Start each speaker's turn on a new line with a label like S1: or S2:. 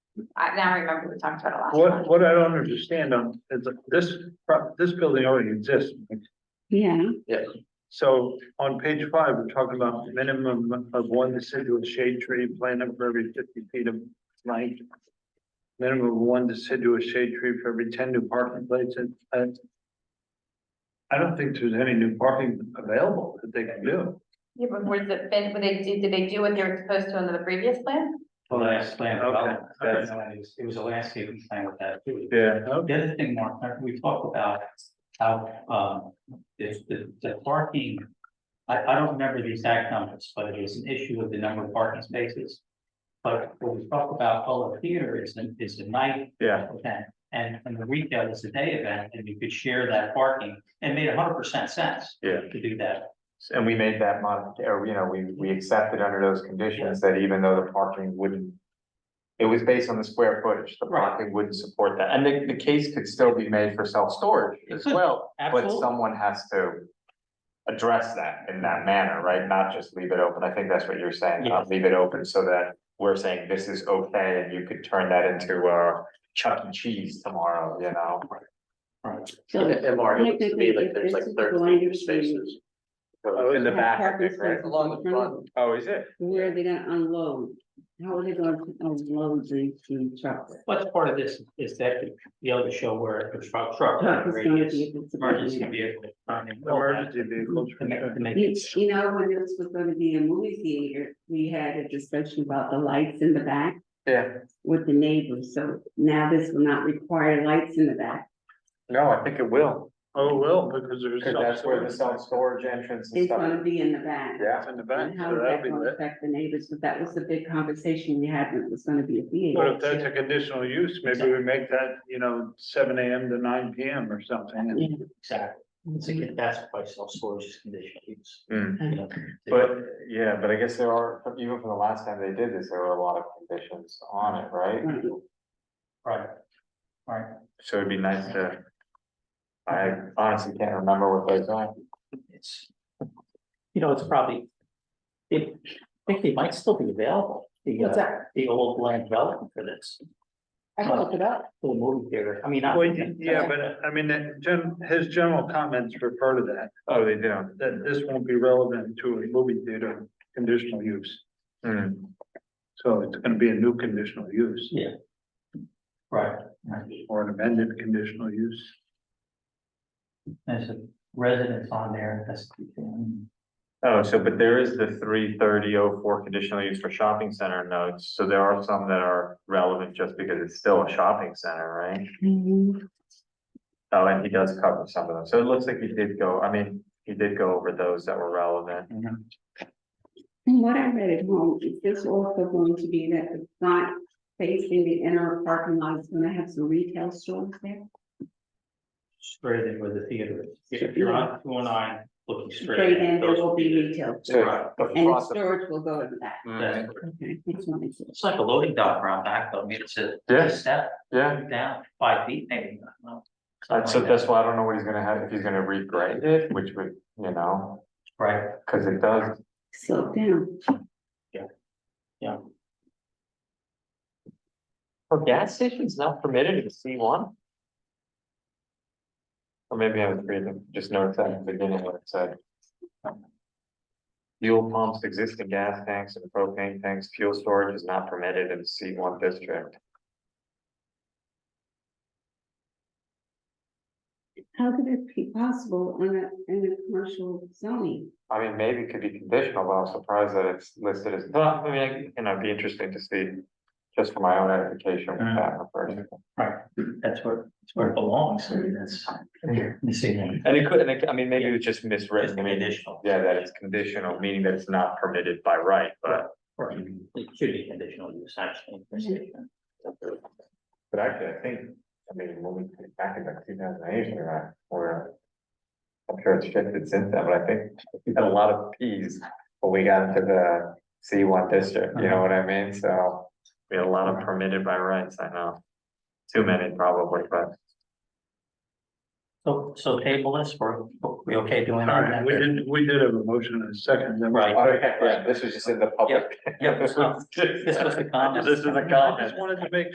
S1: I now I remember we talked about it last
S2: What,
S1: time.
S2: what I don't understand on, is that this, pro- this building already exists.
S3: Yeah,
S2: So on page five, we're talking about minimum of one deciduous shade tree planted for every fifty feet of length. Minimum of one deciduous shade tree for every ten new parking places. And I don't think there's any new parking available that they can do.
S1: Yeah, but was it, been- were they, did, did they do what they were supposed to under the previous plan?
S4: The last plan
S2: Okay,
S4: development,
S2: okay.
S4: that's, when it was- it was a landscaping plan with that too.
S2: Yeah.
S4: The other thing, Mark, remember we talked about how, um, if the, the parking. I, I don't remember the exact numbers, but it is an issue with the number of parking spaces. But what we talk about, oh, the theater is, the- is the night
S2: Yeah.
S4: event, and, and the retail is the day event, and you could share that parking. It made hundred percent sense.
S5: Yeah.
S4: To do that,
S5: And we made that mod, or, you know, we, we accepted under those conditions that even though the parking wouldn't. It was based on the square footage, the
S4: Right.
S5: parking wouldn't support that, and the, the case could still be made for self-storage as well, but
S4: absolutely.
S5: someone has to. Address that in that manner, right, not just leave it open, I think that's what you're saying, not leave it open so that we're saying this is okay, and you could turn that into a. Chuck E. Cheese tomorrow, you know?
S4: Right.
S3: so
S6: And- And Mark, it looks to me
S3: technically,
S6: like
S3: if
S6: there's
S3: this
S6: like
S3: is going
S6: thirteen
S3: to
S6: spaces.
S4: Oh,
S5: In the
S3: have
S5: back, I
S3: parking
S5: think, right?
S3: spaces
S6: Along
S3: in
S6: the
S3: front,
S6: front,
S5: Oh, is it?
S3: Where are they gonna unload? How are they gonna unload the, the trucks?
S4: What's part of this is that be able to show where a truck, truck,
S3: Truck is gonna
S4: radius,
S3: be- it's gonna
S4: emergency
S3: be-
S4: vehicle. I mean, all that,
S2: Emergency vehicles.
S4: To make, to make
S3: You
S4: it.
S3: you know, when this was gonna be a movie theater, we had a discussion about the lights in the back
S5: Yeah.
S3: with the neighbors, so now this will not require lights in the back.
S5: No, I think it will.
S2: Oh, well, because there's.
S5: Cause that's where the self-storage entrance and
S3: It's gonna
S5: stuff.
S3: be in the back.
S5: Yeah,
S2: In the back,
S3: And
S2: so
S3: how is
S2: that'd
S3: that
S2: be
S3: gonna
S2: lit.
S3: affect the neighbors, but that was the big conversation we had, when it was gonna be a
S2: But
S3: theater.
S2: if that's a conditional use, maybe we make that, you know, seven AM to nine PM or something. and-
S4: Exactly. It's again, that's why self-storage is conditional use.
S5: Mm.
S4: you know,
S5: but, yeah, but I guess there are, even from the last time they did this, there were a lot of conditions on it, right?
S3: Right.
S4: Right. Right.
S5: So it'd be nice to. I honestly can't remember what those are.
S4: It's, you know, it's probably, it, I think they might still be available, the, uh, the old land development for this,
S3: I
S4: can
S3: looked it up.
S4: for the movie theater. I mean, not.
S2: Well, y- yeah, but uh, I mean, that gen, his general comments refer to that,
S5: Oh, they do.
S2: that this won't be relevant to a movie theater conditional use.
S5: Hmm.
S2: So it's gonna be a new conditional use
S4: Right, right.
S2: or an amended conditional use.
S4: There's a residence on there, that's.
S5: Oh, so but there is the three thirty oh four conditional use for shopping center notes, so there are some that are relevant just because it's still a shopping center, right? Oh, and he does cover some of them, so it looks like he did go, I mean, he did go over those that were relevant.
S3: From what I read at home, is this also going to be that it's not facing the inner parking lot, it's gonna have some retail stores there?
S4: Straight in where the theater is. If you're on two oh nine, looking straight.
S3: Straight in, there
S4: those
S3: will be
S4: theaters.
S3: retail, stores,
S4: Right.
S5: The
S3: and the
S5: front-
S3: storage will go in that.
S5: Mm,
S3: Okay, that's what I said.
S4: It's like a loading dock around back, though, I mean, it's a.
S5: Yeah.
S4: Step
S5: Yeah,
S4: down five feet, maybe. I don't know.
S5: and so
S4: Something like
S5: that's
S4: that.
S5: why I don't know what he's gonna have, if he's gonna regrade it, which would, you know,
S4: Right,
S5: cause it does,
S3: Slow down.
S4: yeah.
S5: Oh, gas station's not permitted in C one? Or maybe I was reading, just noticed that at the beginning, what it said. Fuel pumps, existing gas tanks and propane tanks, fuel storage is not permitted in C one district.
S3: How could it be possible in a, in a commercial zoning?
S5: I mean, maybe it could be conditional, but I'm surprised that it's listed as, well, I mean, you know, it'd be interesting to see. Just for my own edification, what that refers to.
S4: Right, that's where, that's where it belongs, I mean, that's. Missing.
S5: And it could, and it, I mean, maybe it was just
S4: Just
S5: miswritten, I mean,
S4: conditional.
S5: yeah, that it's conditional, meaning that it's not permitted by right, but.
S4: Right. It should be conditional use, actually. per se.
S5: But actually, I think, I mean, when we think back in like two thousand eight or that, or. I'm sure it's shifted since then, but I think we had a lot of Ps when we got into the C one district, you know what I mean, so. We had a lot of permitted by rights, I know. Too many probably, but.
S4: So, so table this, we're, we okay doing
S2: All
S4: that?
S2: right, we did, we did have a motion in a second. then we-
S4: Right.
S5: Oh, Okay, yeah, this was just in the public.
S4: Yep, yep, so
S5: This
S4: this was the comment.
S5: This is a
S2: I
S5: comment.
S2: just wanted to make